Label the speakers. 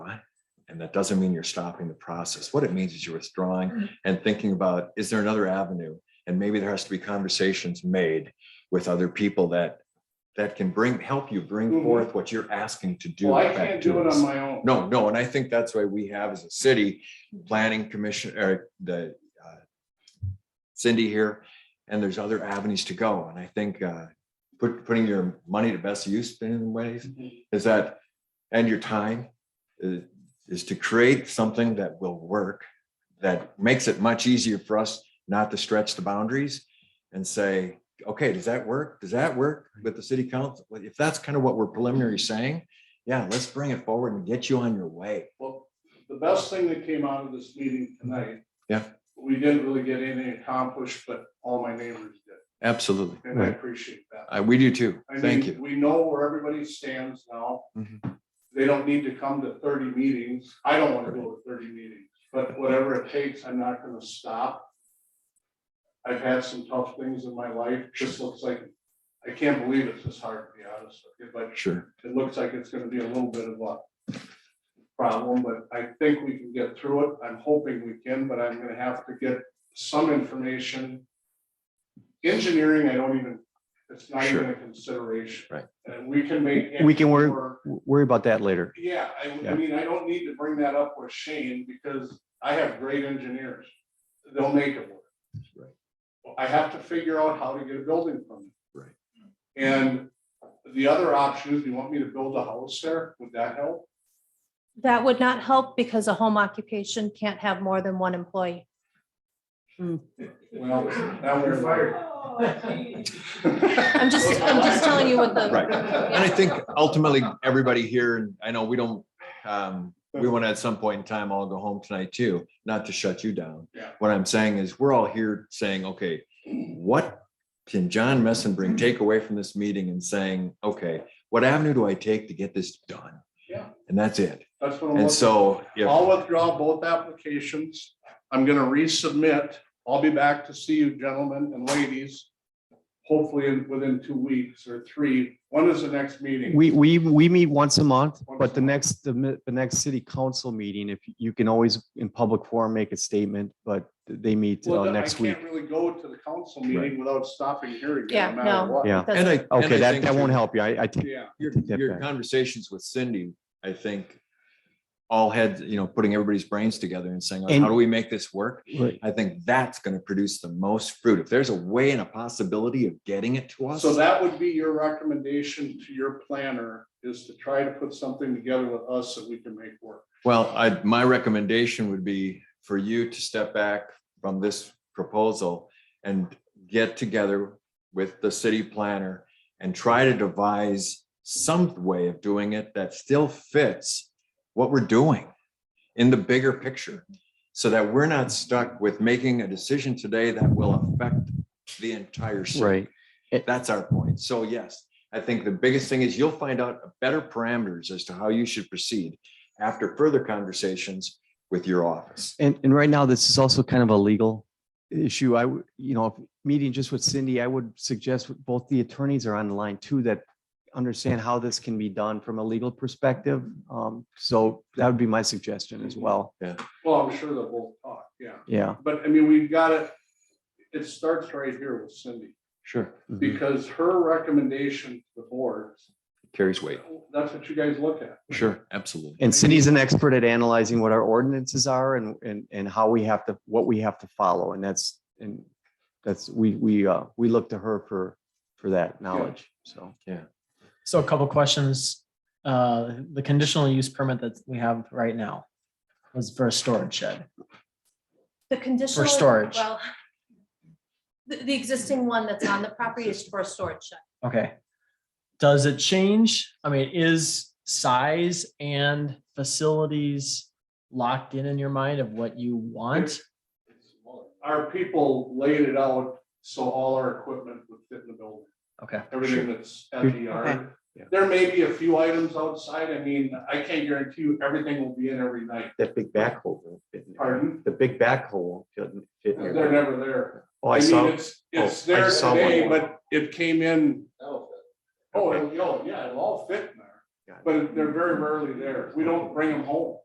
Speaker 1: That doesn't mean you're stopping the process. What it means is you're
Speaker 2: Mm-hmm.
Speaker 1: withdrawing and thinking about, is there another avenue? And maybe there has to be conversations made with other people that, that can bring, help you bring
Speaker 2: Mhm.
Speaker 1: forth what you're asking to do.
Speaker 2: Well, I
Speaker 1: back
Speaker 2: can't
Speaker 1: to
Speaker 2: do it
Speaker 1: us.
Speaker 2: on my own.
Speaker 1: No, no, and I think that's why we have as a city planning commission or the uh, Cindy here, and there's other avenues to go. And I think uh, put, putting your money to best use in ways
Speaker 2: Mhm.
Speaker 1: is that, and your time is, is to create something that will work, that makes it much easier for us not to stretch the boundaries and say, okay, does that work? Does that work with the city council? Well, If that's kind of what we're preliminary saying, yeah, let's bring it forward and get you on your way.
Speaker 2: Well, the best thing that came out of this meeting tonight.
Speaker 1: Yeah.
Speaker 2: We didn't really get anything accomplished, but all my neighbors did,
Speaker 1: Absolutely.
Speaker 2: and I appreciate that.
Speaker 1: Uh, we do too.
Speaker 2: I
Speaker 1: Thank
Speaker 2: mean,
Speaker 1: you.
Speaker 2: We know where everybody stands now.
Speaker 1: Mhm.
Speaker 2: They don't need to come to thirty meetings. I don't want to go to thirty meetings, but whatever it takes, I'm not gonna stop. I've had some tough things in my life. Just looks like, I can't believe it's this hard, to be honest with you, but
Speaker 1: Sure.
Speaker 2: it looks like it's gonna be a little bit of a problem, but I think we can get through it. I'm hoping we can, but I'm gonna have to get some information. Engineering, I don't even, it's not even a consideration.
Speaker 1: Right.
Speaker 2: And we can make.
Speaker 3: We can work-
Speaker 2: work.
Speaker 3: W- Worry about that later.
Speaker 2: Yeah, I, I
Speaker 3: Yeah.
Speaker 2: mean, I don't need to bring that up with Shane because I have great engineers. They'll make it work.
Speaker 1: Right.
Speaker 2: Well, I have to figure out how to get a building permit.
Speaker 1: Right.
Speaker 2: And the other option is, you want me to build a house there? Would that help?
Speaker 4: That would not help because a home occupation can't have more than one employee.
Speaker 2: Well, now we're fired.
Speaker 4: I'm just, I'm just telling you what the,
Speaker 1: Right. And I think ultimately, everybody here, and I know we don't, um, we want to at some point in time, all go home tonight too, not to shut you down.
Speaker 2: Yeah.
Speaker 1: What I'm saying is, we're all here saying, okay, what can John Messon bring, take away from this meeting and saying, okay, what avenue do I take to get this done?
Speaker 2: Yeah.
Speaker 1: And that's it.
Speaker 2: That's what I'm. looking
Speaker 1: And so,
Speaker 2: for.
Speaker 1: if,
Speaker 2: I'll withdraw both applications. I'm gonna resubmit. I'll be back to see you gentlemen and ladies. Hopefully in, within two weeks or three. When is the next meeting?
Speaker 3: We, we, we meet once a month,
Speaker 2: Once
Speaker 3: but
Speaker 2: a
Speaker 3: the
Speaker 2: month.
Speaker 3: next, the mi- the next city council meeting, if you can always in public forum, make a statement, but they meet
Speaker 2: Well,
Speaker 3: uh,
Speaker 2: then I
Speaker 3: next week.
Speaker 2: can't really go to the council meeting without stopping hearing. it, no
Speaker 4: Yeah,
Speaker 2: matter
Speaker 4: no.
Speaker 2: what.
Speaker 3: Yeah.
Speaker 1: and I.
Speaker 4: doesn't-
Speaker 1: and I
Speaker 3: Okay, that,
Speaker 1: think
Speaker 3: that
Speaker 1: too-
Speaker 3: won't help you. I, I think
Speaker 2: Yeah,
Speaker 1: Your,
Speaker 3: take that
Speaker 1: your
Speaker 3: back.
Speaker 1: conversations with Cindy, I think, all had, you know, putting everybody's brains together and saying, like,
Speaker 3: And-
Speaker 1: how do we make this work?
Speaker 3: Right.
Speaker 1: I think that's going to produce the most fruit. If there's a way and a possibility of getting it to us.
Speaker 2: so that would be your recommendation to your planner is to try to put something together with us that we can make work.
Speaker 1: Well, I, my recommendation would be for you to step back from this proposal and get together with the city planner and try to devise some way of doing it that still fits what we're doing in the bigger picture. So that we're not stuck with making a decision today that will affect the entire city.
Speaker 3: Right.
Speaker 1: That's our point. So yes, I think the biggest thing is you'll find out better parameters as to how you should proceed after further conversations with your office.
Speaker 3: And, and right now, this is also kind of a legal issue. I, would, you know, if- meeting just with Cindy, I would suggest with both the attorneys are on the line too, that understand how this can be done from a legal perspective. Um, so that would be my suggestion as well.
Speaker 2: Well, I'm sure they'll both talk, yeah.
Speaker 3: Yeah.
Speaker 2: But I mean, we've got it, it starts right here with Cindy,
Speaker 1: Sure.
Speaker 3: Mhm.
Speaker 2: because her recommendation to the board,
Speaker 1: Carries weight.
Speaker 2: that's what you guys look at.
Speaker 1: Sure, absolutely.
Speaker 3: And Cindy's an expert at analyzing what our ordinances are and, and, and how we have to, what we have to follow. And that's, and that's, we, we, uh, we look to her for, for that knowledge. So.
Speaker 5: So a couple questions. Uh, the conditional use permit that we have right now was for a storage shed.
Speaker 4: the conditional.
Speaker 5: storage.
Speaker 4: Well, the, the existing one that's on the property is for a storage shed.
Speaker 5: Okay. Does it change? I mean, is size and facilities locked in in your mind of what you want?
Speaker 2: Our people laid it out so all our equipment would fit in the building.
Speaker 5: Okay,
Speaker 2: everything that's at the yard.
Speaker 3: Yeah.
Speaker 2: There may be a few items outside. I mean, I can't guarantee you everything will be in every night.
Speaker 3: That big backhoe. won't fit in there.
Speaker 2: Pardon?
Speaker 3: The big backhoe. doesn't fit in
Speaker 2: They're
Speaker 3: there.
Speaker 2: never there.
Speaker 3: Oh, I
Speaker 2: mean,
Speaker 3: saw,
Speaker 2: It's, it's
Speaker 3: oh, I
Speaker 2: there
Speaker 3: just saw one.
Speaker 2: today, but it came in. Oh,
Speaker 3: Okay.
Speaker 2: it'll- oh, yeah, it'll all fit in there,
Speaker 3: Got it.
Speaker 2: but they're very rarely there. We don't bring them home.